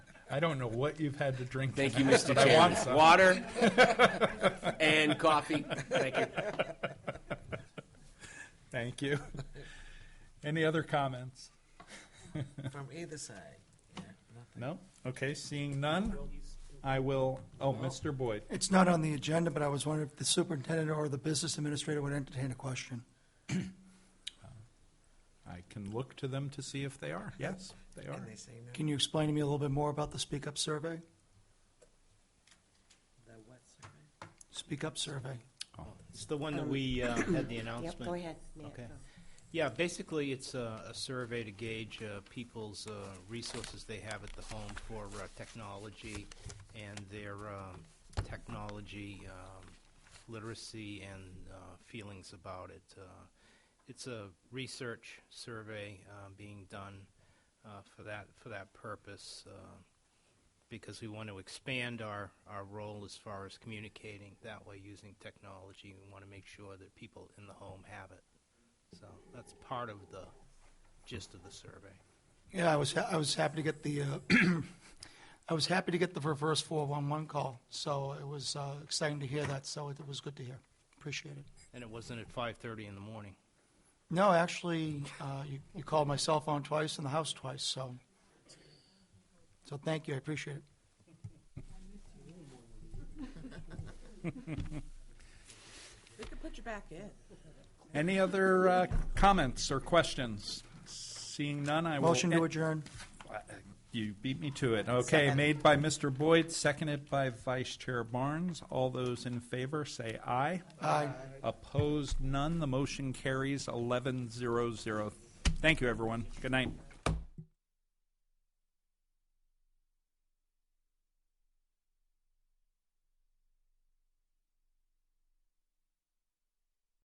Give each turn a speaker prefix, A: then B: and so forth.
A: I don't know what you've had to drink.
B: Thank you,
A: tonight,
B: Mr.
A: but I want
B: Chairman.
A: some.
B: Water and coffee. Thank you.
A: Thank you. Any other comments?
C: From either side. Yeah, nothing.
A: No? Okay, seeing none, I will, oh, Mr. Boyd.
D: It's not on the agenda, but I was wondering if the superintendent or the business administrator would entertain a question.
A: I can look to them to see if they are. Yes, they are.
C: And they say no.
D: Can you explain to me a little bit more about the Speak Up survey?
C: The what survey?
D: Speak Up survey.
E: It's the one that we uh, had the announcement.
F: Um, Yep, go ahead. Matt,
E: Okay.
F: go.
E: Yeah, basically, it's a, a survey to gauge uh, people's uh, resources they have at the home for uh, technology and their um, technology um, literacy and uh, feelings about it. Uh, It's a research survey uh, being done uh, for that, for that purpose, uh, because we want to expand our, our role as far as communicating that way using technology. We want to make sure that people in the home have it. So that's part of the gist of the survey.
D: Yeah, I was, ha- I was happy to get the, uh, I was happy to get the reverse 411 call, so it was uh, exciting to hear that, so it was good to hear. Appreciate it.
E: And it wasn't at 5:30 in the morning.
D: No, actually, uh, you you called my cell phone twice and the house twice, so, so thank you, I appreciate it.
G: We could put you back in.
A: Any other uh, comments or questions? Seeing none, I will.
D: Motion to adjourn.
A: You beat me to it. Okay,
G: Second.
A: made by Mr. Boyd, seconded by Vice Chair Barnes. All those in favor, say aye.
D: Aye.
A: Opposed, none. The motion carries 11-0-0. Thank you, everyone. Good night.